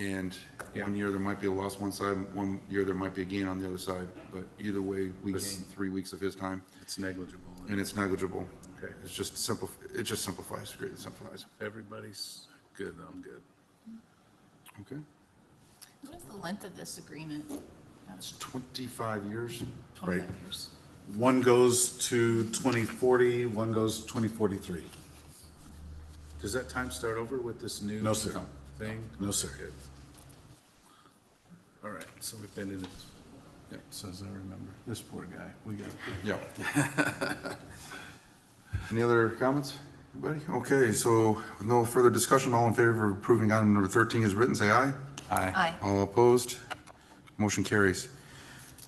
And one year there might be a loss one side, one year there might be a gain on the other side, but either way, we gain three weeks of his time It's negligible. and it's negligible. Okay. It's just simple, it just simplifies, greatly simplifies. Everybody's good, I'm good. Okay. What is the length of this agreement? That's 25 years. 25 years. One goes to 2040, one goes to 2043. Does that time start over with this new? No, sir. Thing? No, sir. Good. All right, so we've been in it, yeah, so as I remember, this poor guy, we got, Yeah. Any other comments? Anybody? Okay, so with no further discussion, all in favor of approving item number 13 is written, say aye. Aye. All opposed? Motion carries.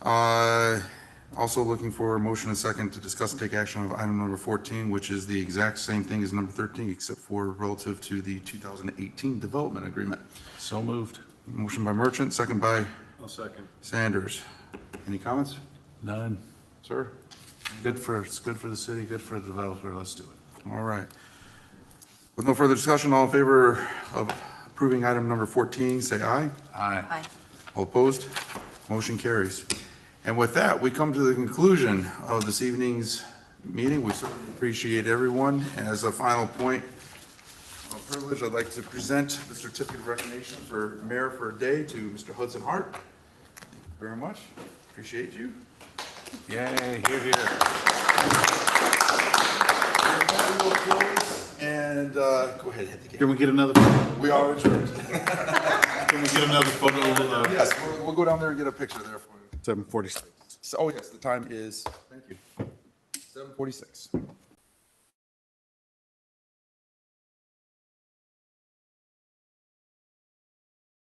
Uh, Also looking for a motion and second to discuss and take action of item number 14, which is the exact same thing as number 13, except for relative to the 2018 development agreement. so moved. Motion by Merchant, second by I'll second. Sanders. Any comments, None. sir? Good for, it's good for the city, good for the developer, let's do it. All right. With no further discussion, all in favor of approving item number 14, say aye. Aye. Aye. All opposed? Motion carries. And with that, we come to the conclusion of this evening's meeting. We certainly appreciate everyone. And as a final point of privilege, I'd like to present the certificate of recognition for Mayor for a Day to Mr. Hudson Hart. Thank you Very much. Appreciate you. Yay, here, here. And uh, go ahead, hit the game. Can we get another, can We are adjourned. we get another photo? uh, Yes, we'll- we'll go down there and get a picture there for you. 746. So, oh yes, the time is, thank you, 7:46.